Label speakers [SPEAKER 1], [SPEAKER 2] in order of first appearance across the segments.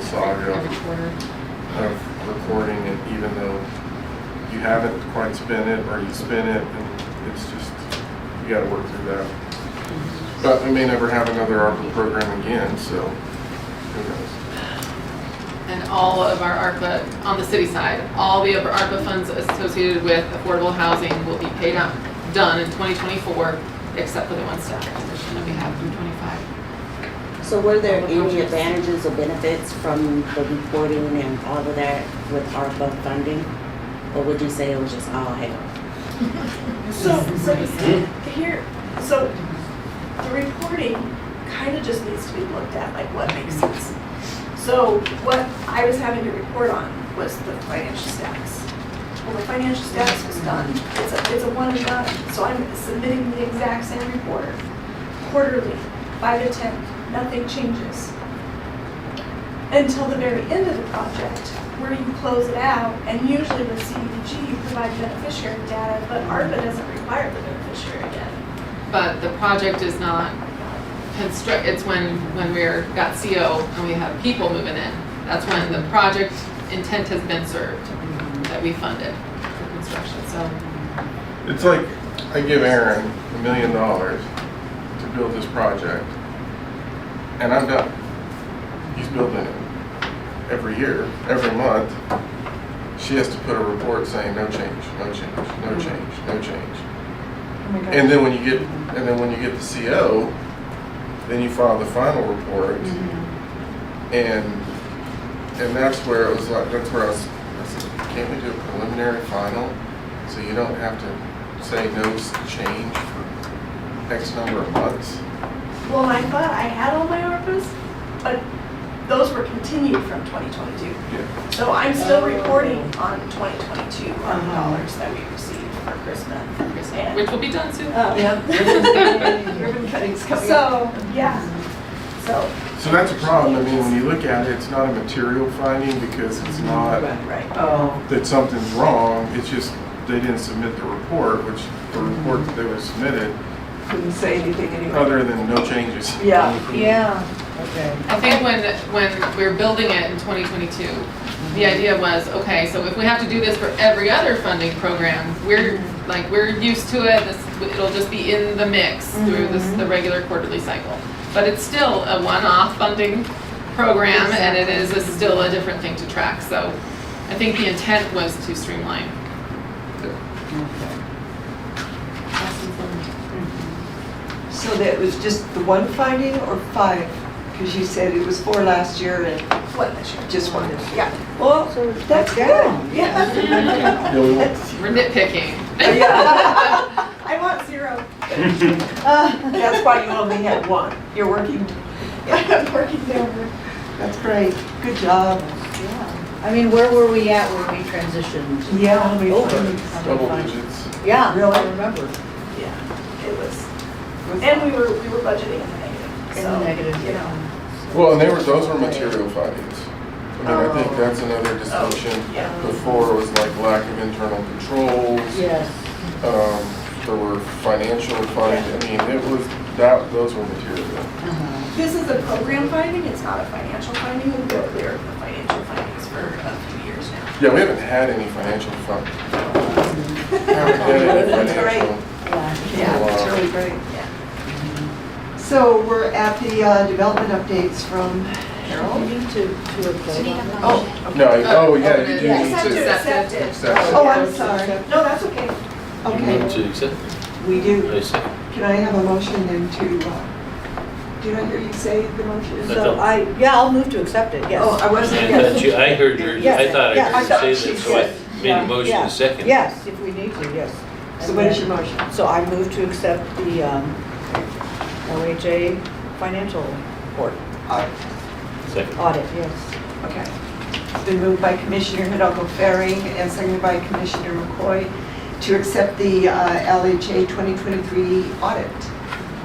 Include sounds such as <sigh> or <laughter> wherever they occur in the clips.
[SPEAKER 1] this audio
[SPEAKER 2] Every quarter.
[SPEAKER 1] of recording it, even though you haven't quite spent it or you spent it, and it's just, you gotta work through that. But we may never have another ARPA program again, so who knows?
[SPEAKER 2] And all of our ARPA, on the city side, all the other ARPA funds associated with affordable housing will be paid out, done in 2024, except for the one staff position that we have through '25.
[SPEAKER 3] So were there any advantages or benefits from the reporting and all of that with ARPA funding? Or would you say it was just all hell?
[SPEAKER 4] So, so here, so the reporting kind of just needs to be looked at, like what makes sense. So what I was having to report on was the financial status. Well, the financial status was done. It's a, it's a one and done. So I'm submitting the exact same report quarterly, by the tenth, nothing changes. Until the very end of the project, where you close it out, and usually with CDBG, you provide beneficiary data, but ARPA doesn't require the beneficiary data.
[SPEAKER 2] But the project is not construct, it's when, when we're, got CO and we have people moving in. That's when the project intent has been served, that we funded for construction, so.
[SPEAKER 1] It's like, I give Aaron a million dollars to build this project, and I'm done. He's building it every year, every month. She has to put a report saying, no change, no change, no change, no change. And then when you get, and then when you get the CO, then you file the final report.
[SPEAKER 2] Mm-hmm.
[SPEAKER 1] And, and that's where it was like, that's where I was, I said, can't we do a preliminary final? So you don't have to say no s- change for X number of months?
[SPEAKER 4] Well, I thought I had all my ARPAs, but those were continued from twenty twenty-two.
[SPEAKER 1] Yeah.
[SPEAKER 4] So I'm still reporting on twenty twenty-two ARPA dollars that we received for Christmas.
[SPEAKER 2] Which will be done soon. <laughs>
[SPEAKER 4] Um, <laughs>
[SPEAKER 5] Ribbon cutting's coming up.
[SPEAKER 4] So, yeah, so,
[SPEAKER 1] So that's a problem. I mean, when you look at it, it's not a material finding because it's not
[SPEAKER 4] right.
[SPEAKER 5] Oh,
[SPEAKER 1] that something's wrong. It's just they didn't submit the report, which the report that they were submitted,
[SPEAKER 5] couldn't Mm-hmm. say anything anyway.
[SPEAKER 1] other than no changes. <laughs>
[SPEAKER 5] Yeah. Yeah. Okay.
[SPEAKER 2] I think when, when we were building it in 2022, the idea was, okay, so if we have to do this for every other funding program, we're, like, we're used to it, this, it'll just be in the mix through this, the regular quarterly cycle. But it's still a one-off funding program, and it is a- still a different thing to track, so I think the intent was to streamline.
[SPEAKER 5] So that was just the one finding or five? Because you said it was four last year and
[SPEAKER 4] What this year?
[SPEAKER 5] just one this year.
[SPEAKER 4] Yeah.
[SPEAKER 5] Well, that's good.
[SPEAKER 4] Yeah. <laughs>
[SPEAKER 1] Yeah, we want-
[SPEAKER 5] <laughs>
[SPEAKER 2] We're nitpicking.
[SPEAKER 5] Yeah.
[SPEAKER 4] I want zero.
[SPEAKER 5] That's why you only had one. You're working,
[SPEAKER 4] <laughs> I'm working downward.
[SPEAKER 5] that's great. Good job.
[SPEAKER 6] Yeah. I mean, where were we at when we transitioned?
[SPEAKER 5] Yeah. we-
[SPEAKER 6] Over.
[SPEAKER 1] Double digits.
[SPEAKER 6] Yeah,
[SPEAKER 5] Really?
[SPEAKER 6] I remember.
[SPEAKER 4] Yeah, it was, and we were, we were budgeting in the negative,
[SPEAKER 6] In
[SPEAKER 4] so,
[SPEAKER 6] the negative,
[SPEAKER 4] you know.
[SPEAKER 1] Well, and they were, those were material findings. I mean, I think that's another distinction.
[SPEAKER 4] Oh, yeah.
[SPEAKER 1] Before was like lack of internal controls.
[SPEAKER 6] Yes.
[SPEAKER 1] Um, there were financial findings. I mean, it was, that, those were material.
[SPEAKER 4] This is a program finding, it's not a financial finding, we've been clear of the financial findings for a few years now.
[SPEAKER 1] Yeah, we haven't had any financial fun. Haven't had any
[SPEAKER 5] That's great.
[SPEAKER 1] financial.
[SPEAKER 5] Yeah, that's
[SPEAKER 1] Oh, Wow.
[SPEAKER 5] really great. So we're at the uh, development updates from
[SPEAKER 6] You
[SPEAKER 5] Harold.
[SPEAKER 6] need to, to apply.
[SPEAKER 4] Oh.
[SPEAKER 1] No, oh, yeah, you do
[SPEAKER 2] Yeah.
[SPEAKER 1] need
[SPEAKER 4] Just have to
[SPEAKER 1] to.
[SPEAKER 4] accept it.
[SPEAKER 1] accept it.
[SPEAKER 5] Oh, I'm sorry.
[SPEAKER 4] No, that's okay.
[SPEAKER 5] Okay,
[SPEAKER 7] to accept,
[SPEAKER 5] we do.
[SPEAKER 7] I second.
[SPEAKER 5] Can I have a motion then to, uh, did I hear you say the motion?
[SPEAKER 6] So I, yeah, I'll move to accept it,
[SPEAKER 5] Oh,
[SPEAKER 6] yes.
[SPEAKER 5] I wasn't,
[SPEAKER 7] I thought you, uh, I heard your, I
[SPEAKER 6] Yes,
[SPEAKER 7] thought
[SPEAKER 6] yeah, I
[SPEAKER 7] I
[SPEAKER 5] thought
[SPEAKER 7] heard you
[SPEAKER 5] she
[SPEAKER 7] say that, so I
[SPEAKER 6] said-
[SPEAKER 7] made a motion
[SPEAKER 6] Yeah.
[SPEAKER 7] to second.
[SPEAKER 6] Yes, if we need to, yes.
[SPEAKER 5] so what is your motion?
[SPEAKER 6] So I move to accept the um, OHA financial report,
[SPEAKER 7] Second.
[SPEAKER 6] audit, yes.
[SPEAKER 5] Okay. It's been moved by Commissioner Hidalgo Ferry and seconded by Commissioner McCoy to accept the uh, LHA 2023 audit.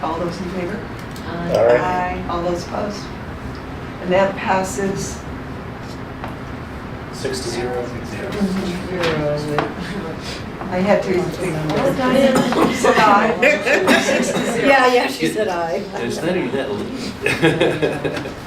[SPEAKER 5] All those in favor? Aye. All those opposed? And that passes
[SPEAKER 8] Six to zero.
[SPEAKER 5] I had to uh, think. <laughs> Said aye.
[SPEAKER 6] Yeah, yeah, she said aye. <laughs>
[SPEAKER 7] It's not even that late.